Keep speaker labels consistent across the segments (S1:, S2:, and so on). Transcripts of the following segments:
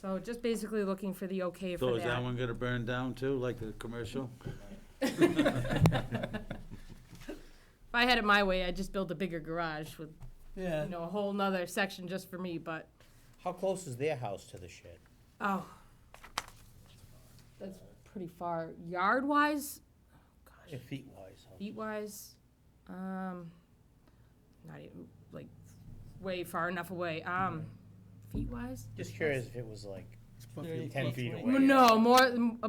S1: So just basically looking for the okay
S2: So
S1: for
S2: is that
S1: that.
S2: one gonna burn down too, like the commercial?
S1: If I had it my way, I'd just build a bigger garage with,
S3: Yeah.
S1: you know, a whole nother section just for me, but,
S4: How close is their house to the shed?
S1: oh. That's pretty far. Yard wise, gosh,
S4: Feet wise. huh?
S1: feet wise, um, not even, like, way far enough away, um, feet wise?
S4: Just curious if it was like ten feet away.
S1: No, more, uh,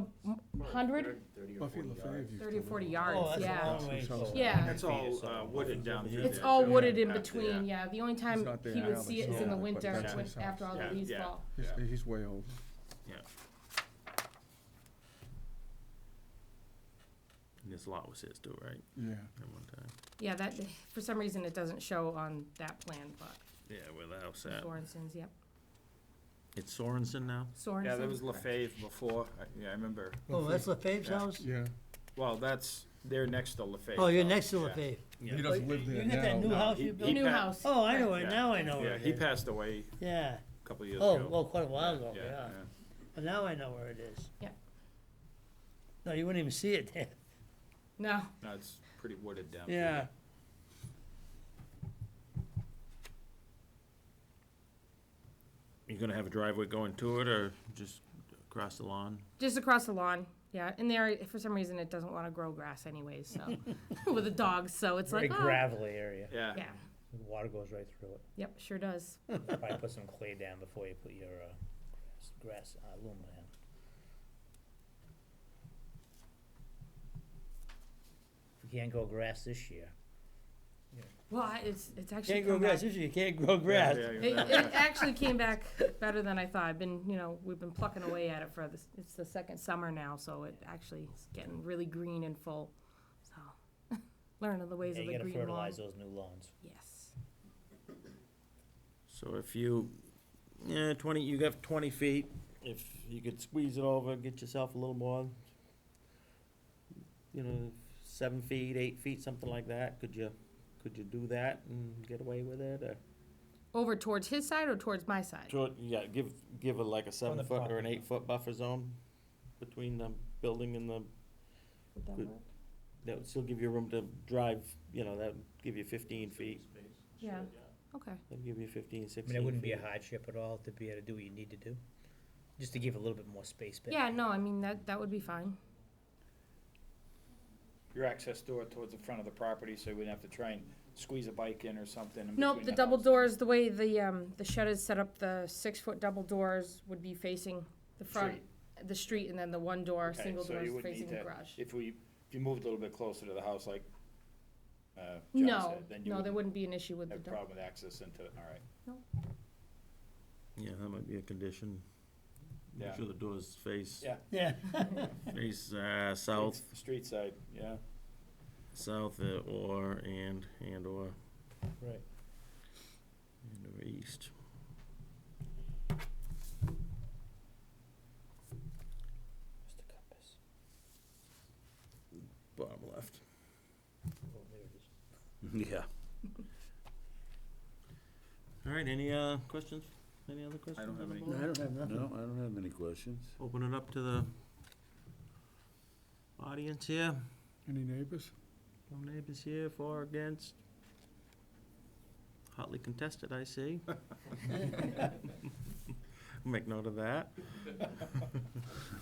S1: hundred,
S3: Buffy LaFave used
S1: thirty or
S3: to
S1: forty
S3: live
S4: Oh,
S1: yards,
S4: that's a
S1: yeah.
S4: long way.
S3: Yeah.
S1: Yeah.
S5: It's all uh, wooded down through there.
S1: It's all
S5: too.
S1: wooded in
S5: Back there.
S1: between, yeah. The only
S3: He's
S1: time
S3: not
S1: he
S3: there
S1: would
S3: now,
S1: see
S3: but
S1: it is in the
S3: yeah,
S1: winter,
S3: but that's
S1: when,
S3: his house.
S1: after all the
S5: Yeah,
S1: leaves
S5: yeah.
S1: fall.
S3: on. He's, he's way old.
S5: And This lot was his too, right?
S3: Yeah.
S5: At one time.
S1: Yeah, that, for some reason, it doesn't show on that plan, but
S5: Yeah, where the house at.
S1: Sorensen's, yep.
S5: It's Sorensen now?
S1: Sorensen.
S6: Yeah, there was LaFave before, I- yeah, I remember,
S7: Oh, that's LaFave's
S6: Yeah.
S7: house?
S3: Yeah.
S6: well, that's, they're next to LaFave.
S7: Oh, you're
S6: now.
S7: next to
S6: Yeah.
S7: LaFave.
S3: He doesn't live
S7: You
S3: there
S7: got that new
S3: now.
S7: house
S6: he-
S7: you
S6: he
S7: built?
S1: New
S6: pa-
S1: house.
S7: Oh, I know it,
S6: Yeah.
S7: now I know
S6: Yeah,
S7: it.
S6: he passed away
S7: Yeah.
S6: a couple of years
S7: Oh,
S6: ago.
S7: well, quite a while ago,
S6: Yeah,
S7: yeah. But now I know where it is.
S1: Yeah.
S7: No, you wouldn't even see it there.
S1: No,
S6: No, it's pretty wooded down. through
S7: Yeah.
S5: You gonna have a driveway going to it or just across the lawn?
S1: just across the lawn, yeah. And there, for some reason, it doesn't want to grow grass anyways, so, with the dogs, so it's
S7: Very
S1: like, oh.
S7: gravelly area.
S6: there. Yeah.
S1: Yeah,
S7: Water goes right through it.
S1: yep, sure does.
S7: Probably put some clay down before you put your, uh, grass, grass uh, aluminum. If you can't grow grass this year.
S1: Well, I- it's, it's actually
S7: Can't grow
S1: come back-
S7: grass this year, you can't grow grass.
S6: Yeah,
S1: It,
S6: yeah,
S1: it actually came back better than I thought. I've been, you know, we've been plucking away at it for this, it's the second summer now, so it actually is getting really green and full. So, learning the ways
S7: Yeah,
S1: of
S7: you
S1: the
S7: gotta
S1: green lawn.
S7: fertilize those new lawns.
S1: Yes.
S5: So if you, yeah, twenty, you got twenty feet, if you could squeeze it over, get yourself a little more, you know, seven feet, eight feet, something like that, could you, could you do that and get away with it or?
S1: Over towards his side or towards my side?
S5: Short- yeah, give, give it like a seven foot or an eight foot buffer zone between the building and the,
S1: Would that
S5: Good.
S1: work?
S5: that would still give you room to drive, you know, that'd give you fifteen feet,
S1: Yeah, okay.
S5: that'd give you fifteen, sixteen
S7: I mean, it wouldn't be a
S5: feet.
S7: hardship at all to be able to do what you need to do, just to give a little bit more space back.
S1: Yeah, no, I mean, that, that would be fine.
S6: Your access door towards the front of the property, so you wouldn't have to try and squeeze a bike in or something. in
S1: Nope,
S6: between
S1: the double
S6: house.
S1: doors, the way the, um, the shed is set up, the six-foot double doors would be facing the front, the street, and then the one door,
S6: Okay,
S1: single
S6: so
S1: door
S6: you
S1: is
S6: wouldn't
S1: facing
S6: need
S1: the
S6: to-
S1: garage.
S6: If we, if you moved a little bit closer to the house, like, uh, John
S1: No,
S6: said, then you
S1: no, there
S6: wouldn't
S1: wouldn't be an issue with the
S6: have a
S1: double.
S6: problem with access into it, all right.
S5: Yeah, that might be a condition. Make
S6: Yeah.
S5: sure the doors face,
S6: Yeah.
S7: Yeah.
S5: face, uh, south,
S6: Street- Street side, yeah.
S5: south uh, or, and, and or,
S7: Right.
S5: and or east.
S7: Mr. Compass.
S5: Bottom left.
S7: Oh, there it is.
S5: Yeah. All right, any, uh, questions? Any other questions?
S6: have
S5: on the
S6: any.
S5: board?
S3: don't have nothing. No, I don't have any questions.
S5: Open it up to the audience here.
S3: Any neighbors?
S5: No neighbors here, for or against. Hotly contested, I see. Make note of that.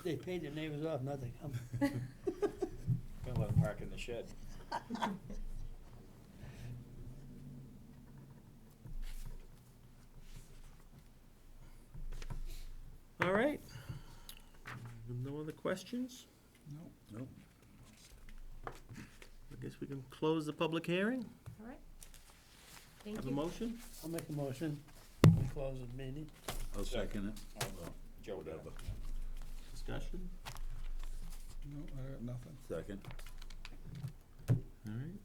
S7: They paid their neighbors off, nothing. I'm-
S6: Gonna let them park in the shed.
S5: All right. No other questions?
S3: No. Nope.
S5: I guess we can close the public hearing.
S1: All right. Thank
S5: Have a
S1: you.
S5: motion?
S7: I'll make a motion. We Close the meeting.
S3: I'll
S6: second
S3: it.
S6: Joe did.
S3: Whatever.
S5: Discussion?
S3: No, I got nothing. Second.
S5: All right.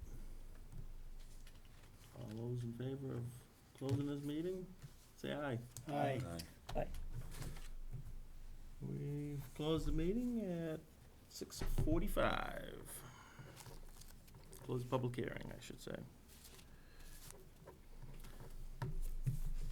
S5: All those in favor of closing this meeting, say aye.
S7: Aye.
S5: We've closed the meeting at six forty-five. Close the public hearing, I should say.